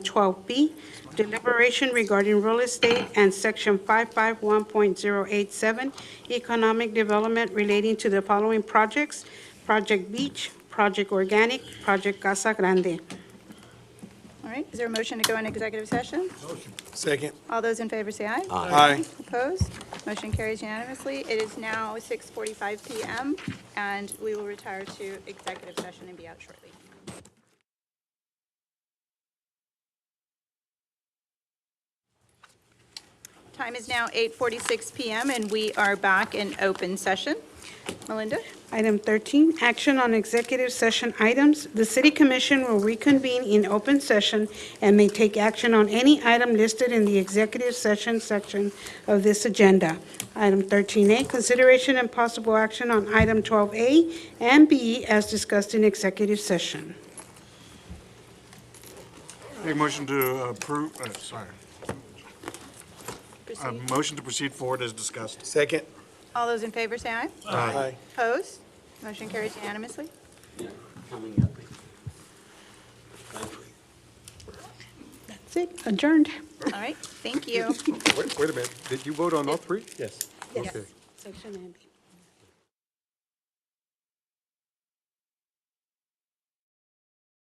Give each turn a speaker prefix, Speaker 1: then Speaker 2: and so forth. Speaker 1: 12B, deliberation regarding real estate and Section 551.087, economic development relating to the following projects: Project Beach, Project Organic, Project Casa Grande.
Speaker 2: All right, is there a motion to go into executive session?
Speaker 3: Second.
Speaker 2: All those in favor say aye.
Speaker 3: Aye.
Speaker 2: Opposed? Motion carries unanimously. It is now 6:45 PM, and we will retire to executive session and be out shortly. Time is now 8:46 PM, and we are back in open session. Melinda?
Speaker 1: Item 13, action on executive session items. The city commission will reconvene in open session and may take action on any item listed in the executive session section of this agenda. Item 13A, consideration and possible action on item 12A and B as discussed in executive session.
Speaker 3: Make a motion to approve, uh, sorry, a motion to proceed forward as discussed. Second.
Speaker 2: All those in favor say aye.
Speaker 3: Aye.
Speaker 2: Opposed? Motion carries unanimously.
Speaker 1: That's it, adjourned.
Speaker 2: All right, thank you.
Speaker 4: Wait wait a minute, did you vote on all three?
Speaker 1: Yes.
Speaker 4: Okay.
Speaker 1: Section and B.